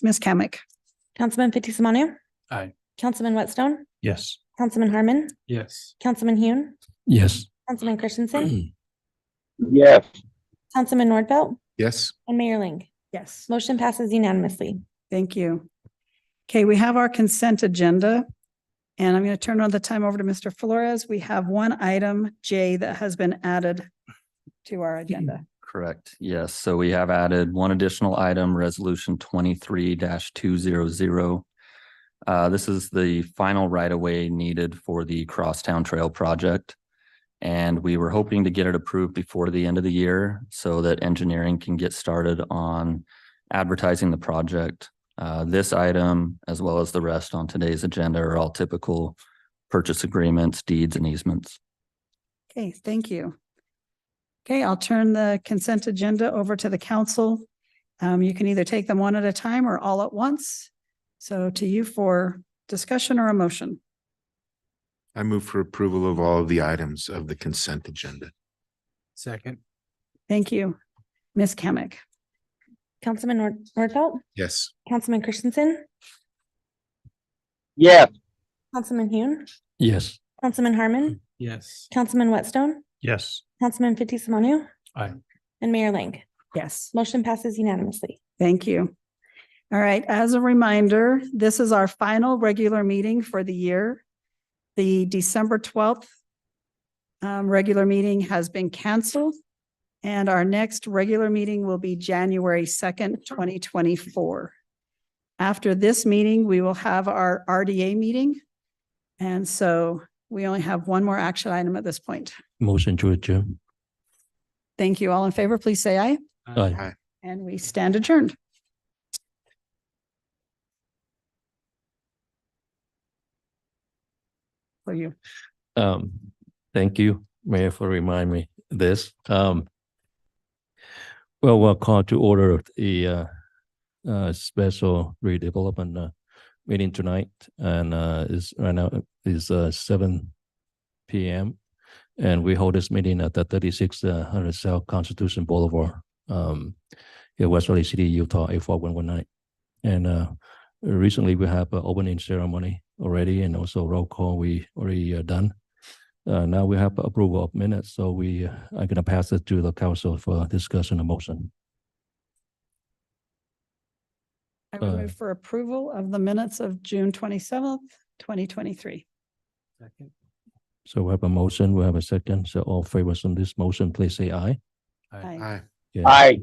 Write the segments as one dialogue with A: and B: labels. A: Ms. Kamic.
B: Councilman Fitzie Umanu.
C: Aye.
B: Councilman Whitstone,
C: Yes.
B: Councilman Harmon,
C: Yes.
B: Councilman Hune,
C: Yes.
B: Councilman Christensen,
D: Yes.
B: Councilman Nordfelt,
C: Yes.
B: and Mayor Ling.
A: Yes.
B: Motion passes unanimously.
A: Thank you. Okay, we have our consent agenda. And I'm going to turn on the time over to Mr. Flores. We have one item, J, that has been added to our agenda.
E: Correct. Yes. So we have added one additional item, resolution twenty-three two zero zero. Uh, this is the final right-of-way needed for the Crosstown Trail project. And we were hoping to get it approved before the end of the year so that engineering can get started on advertising the project. Uh, this item, as well as the rest on today's agenda, are all typical purchase agreements, deeds, and easements.
A: Okay, thank you. Okay, I'll turn the consent agenda over to the council. Um, you can either take them one at a time or all at once. So to you for discussion or a motion.
F: I move for approval of all of the items of the consent agenda.
C: Second.
A: Thank you. Ms. Kamic.
B: Councilman Nord- Nordfelt,
F: Yes.
B: Councilman Christensen,
D: Yes.
B: Councilman Hune,
E: Yes.
B: Councilman Harmon,
C: Yes.
B: Councilman Whitstone,
C: Yes.
B: Councilman Fitzie Umanu.
C: Aye.
B: And Mayor Ling.
A: Yes.
B: Motion passes unanimously.
A: Thank you. All right, as a reminder, this is our final regular meeting for the year. The December twelfth um, regular meeting has been canceled. And our next regular meeting will be January second, twenty twenty-four. After this meeting, we will have our RDA meeting. And so we only have one more action item at this point.
E: Motion to adjourn.
A: Thank you. All in favor, please say aye.
E: Aye.
A: And we stand adjourned. For you.
G: Um, thank you, Mayor, for reminding me this. Um, well, we'll call to order the uh, uh, special redevelopment uh, meeting tonight, and uh, is right now is uh, seven p.m. And we hold this meeting at the thirty-six uh, hundred South Constitution Boulevard, um, in West Valley City, Utah, eight four one one nine. And uh, recently we have an opening ceremony already, and also roll call we already uh, done. Uh, now we have approval of minutes, so we uh, are gonna pass it to the council for discussion and motion.
A: I would
G: Uh,
A: move for approval of the minutes of June twenty-seventh, twenty twenty-three.
C: Second.
G: So we have a motion, we have a second, so all favors on this motion, please say aye.
F: Aye.
G: Yeah.
D: Aye.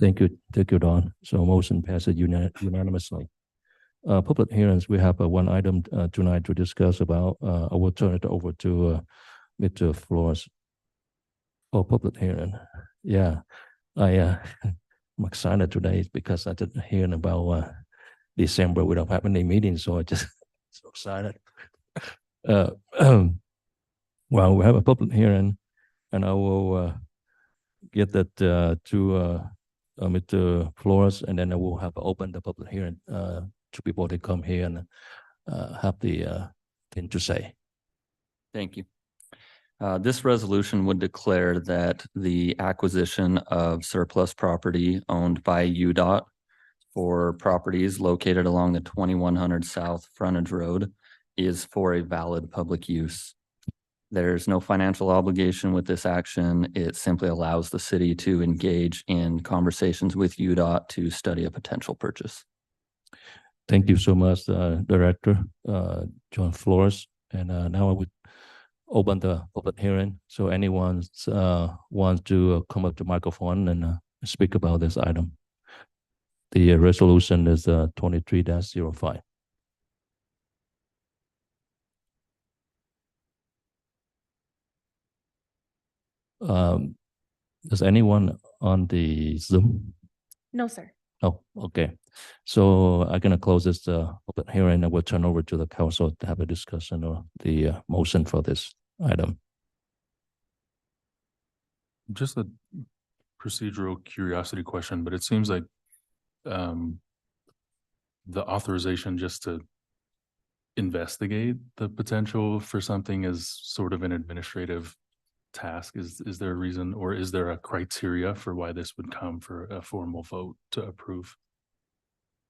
G: Thank you, thank you, Don. So motion passes uni- unanimously. Uh, public hearings, we have uh, one item uh, tonight to discuss about, uh, I will turn it over to uh, Mr. Flores. Oh, public hearing, yeah, I, uh, I'm excited today because I didn't hear about, uh, December, we don't have any meetings, so I just so excited. Uh, well, we have a public hearing and I will, uh, get that, uh, to, uh, uh, Mr. Flores, and then I will have opened the public hearing uh, to people to come here and uh, have the uh, thing to say.
E: Thank you. Uh, This resolution would declare that the acquisition of surplus property owned by UDOT for properties located along the twenty-one hundred South Frontage Road is for a valid public use. There's no financial obligation with this action. It simply allows the city to engage in conversations with UDOT to study a potential purchase.
G: Thank you so much, uh, Director uh, John Flores. And uh, now I would open the public hearing. So anyone uh, wants to uh, come up to microphone and uh, speak about this item. The uh, resolution is uh, 23-05. Um, Does anyone on the Zoom?
B: No, sir.
G: Oh, okay. So I'm gonna close this uh open hearing and we'll turn over to the council to have a discussion or the uh, motion for this item.
C: Just a procedural curiosity question, but it seems like um the authorization just to investigate the potential for something is sort of an administrative task. Is is there a reason or is there a criteria for why this would come for a formal vote to approve?